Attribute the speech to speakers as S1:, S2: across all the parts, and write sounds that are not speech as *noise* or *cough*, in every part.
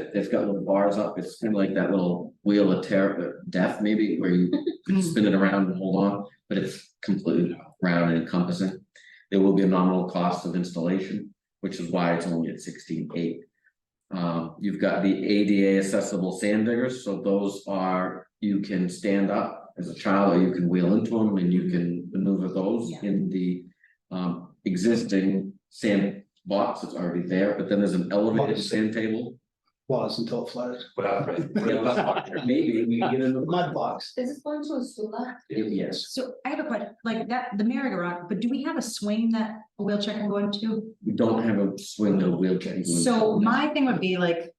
S1: that, it's got little bars up, it's kind of like that little wheel of terror, death maybe, where you
S2: Mm-hmm.
S1: spin it around and hold on, but it's completely round and encompassing. There will be a nominal cost of installation, which is why it's only at sixteen eight. Um, you've got the ADA accessible sand diggers, so those are, you can stand up as a child, or you can wheel into them and you can maneuver those
S2: Yeah.
S1: in the. Um, existing sand box that's already there, but then there's an elevated
S3: Box.
S1: sand table.
S3: was until it flooded.
S4: Well, right.
S1: Yeah, but Maybe we can get in
S3: The
S1: the.
S3: Mud box.
S2: Is this going to a sula?
S1: Yes,
S2: So I have a question, like that, the merry-go-round, but do we have a swing that a wheelchair can go into?
S1: we don't have a swing or wheelchair. you can-
S2: So my thing would be like.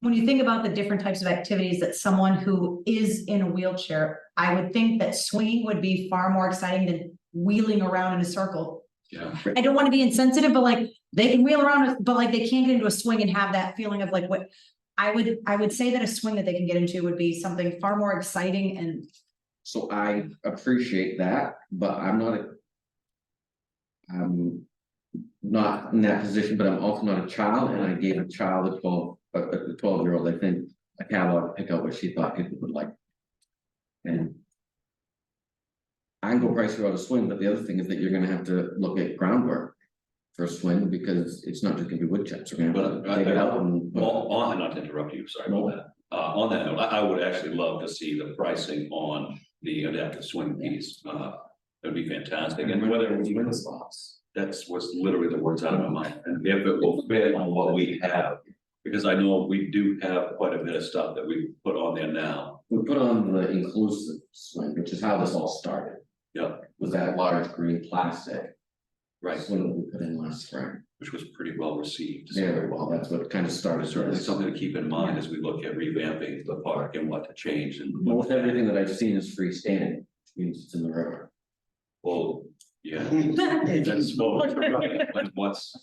S2: When you think about the different types of activities that someone who is in a wheelchair, I would think that swinging would be far more exciting than wheeling around in a circle.
S4: Yeah.
S2: I don't wanna be insensitive, but like, they can wheel around, but like, they can't get into a swing and have that feeling of like, what? I would, I would say that a swing that they can get into would be something far more exciting and
S1: So I appreciate that, but I'm not. a- I'm not in that position, but I'm also not a child and I gave a child a twelve, a, a twelve year old, I think, a catalog to pick out what she thought people would like. And. I can go price her out a swing, but the other thing is that you're gonna have to look at groundwork. For a swing because it's not just gonna be wood chips, we're gonna have
S4: But
S1: to
S4: I-
S1: dig it out and.
S4: Well, on, not to interrupt you, sorry about that. Uh, on that note, I, I would actually love to see the pricing on the adaptive swing piece. Uh, that'd be fantastic. And whether we win this loss, that's what's literally the words out of my mind. And if it will fit on what we have. Because I know we do have quite a bit of stuff that we put on there now.
S1: We put on the inclusive swing, which is how this all started.
S4: Yeah.
S1: Was that large green plastic
S4: Right,
S1: swing that we put in last spring.
S4: which was pretty well received. So uh,
S1: Very well, that's what kind of started sort
S4: Certainly
S1: of.
S4: something to keep in mind as we look at revamping the park and what to change and. what-
S1: Most everything that I've seen is freestanding, which means it's in the river.
S4: Well, yeah. *laughs* That's *laughs* small. But what's.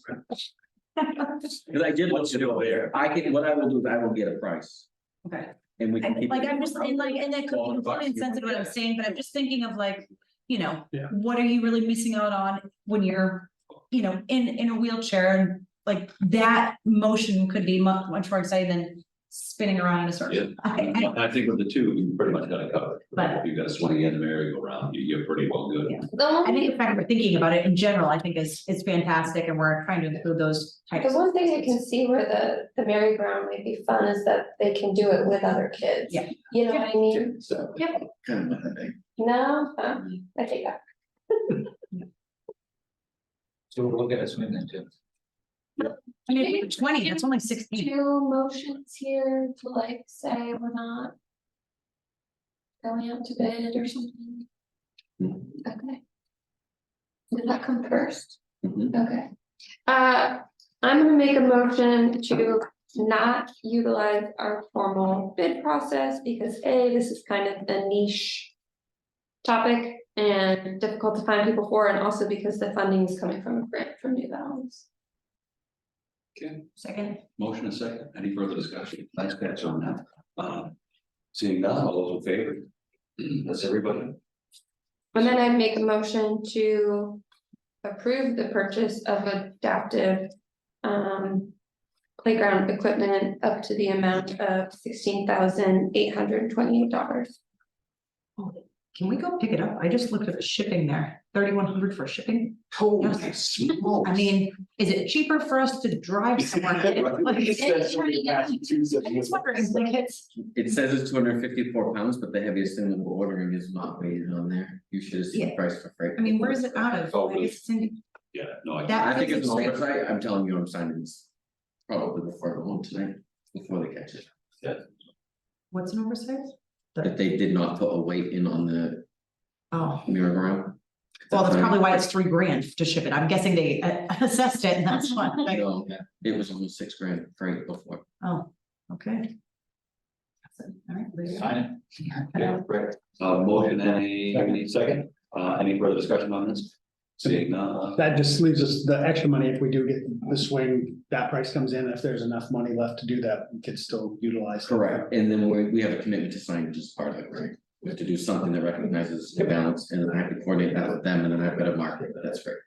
S1: Cause I did look
S4: What's
S1: it
S4: new
S1: over.
S4: there?
S1: I can, what I will do is I will get a price
S2: Okay,
S1: and we can
S2: And,
S1: keep.
S2: like,
S1: it.
S2: I'm just, and like, and that could be
S4: Well,
S2: completely
S4: you-
S2: insensitive what I'm saying, but I'm just thinking of like, you know.
S3: Yeah.
S2: What are you really missing out on when you're, you know, in, in a wheelchair and like that motion could be much, much more exciting than spinning around in a
S4: Yeah.
S2: circle. *laughs* I- I-
S4: I think with the two, you pretty much got it covered.
S2: But-
S4: You've got a swing and a merry-go-round, you, you're pretty well good.
S2: Yeah. I think the fact we're thinking about it in general, I think is, is fantastic and we're trying to include those types.
S5: The one thing I can see where the, the merry-go-round might be fun is that they can do it with other kids.
S2: Yeah.
S5: You know what I mean?
S4: So.
S1: Kind of a thing.
S5: No, Huh? I take that.
S6: So we'll look at us swim then too.
S2: I mean, we're Twenty, that's only sixteen.
S5: Two motions here to like say we're not. Going out to bid or something, okay. Did that come first?
S1: Mhm.
S5: Okay. Uh, I'm gonna make a motion to not utilize our formal bid process because A, this is kind of a niche. Topic and difficult to find people for, and also because the funding is coming from a grant from New Balance.
S2: Second.
S4: Motion and second, any further discussion? Nice catch on that. Uh, Seeing none, all those in favor?
S1: Mm.
S4: That's everybody.
S5: And then I'd make a motion to approve the purchase of adaptive um playground equipment up to the amount of sixteen thousand eight hundred twenty-eight dollars.
S2: Can we go pick it up? I just looked at the shipping there, thirty-one hundred for shipping.
S4: Holy smokes.
S2: I mean, is it cheaper for us to drive
S4: *laughs*
S2: somewhere? Like, I'm just wondering, like, it's,
S1: It says it's two hundred and fifty-four pounds, but the heaviest thing that we're ordering is not weighted on there. You should have seen the
S2: Yeah.
S1: price for freight.
S2: I mean, where is it out of?
S4: Oh,
S2: Like, it's in-
S4: Yeah, no, I.
S2: That-
S1: I think it's an
S2: That's
S1: oversight, I'm telling you, I'm signing this probably before I go home tonight, before they catch it.
S2: What's an oversize?
S1: That they did not put a weight in on the
S2: Oh,
S1: merry-go-round.
S2: well, that's probably why it's three grand to ship it. I'm guessing they uh, *laughs* assessed it and that's why. like,
S4: *laughs*
S1: No, it was almost six grand freight before.
S2: Oh, okay. So, all right, there you go.
S6: Sign
S4: Yeah, correct. Uh, motion and a, any second, uh, any further discussion on this? Seeing none.
S3: That just leaves us the extra money if we do get the swing, that price comes in, if there's enough money left to do that, we could still utilize. it.
S1: Correct, and then we, we have a commitment to sign which is part of it, right? We have to do something that recognizes the balance, and then I have to coordinate that with them, and then I've got to market, but that's fair.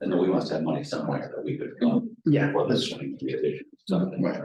S4: And then we must have money somewhere that we could, um,
S3: Yeah,
S4: for the
S3: that's-
S4: swing division, something.
S1: Right.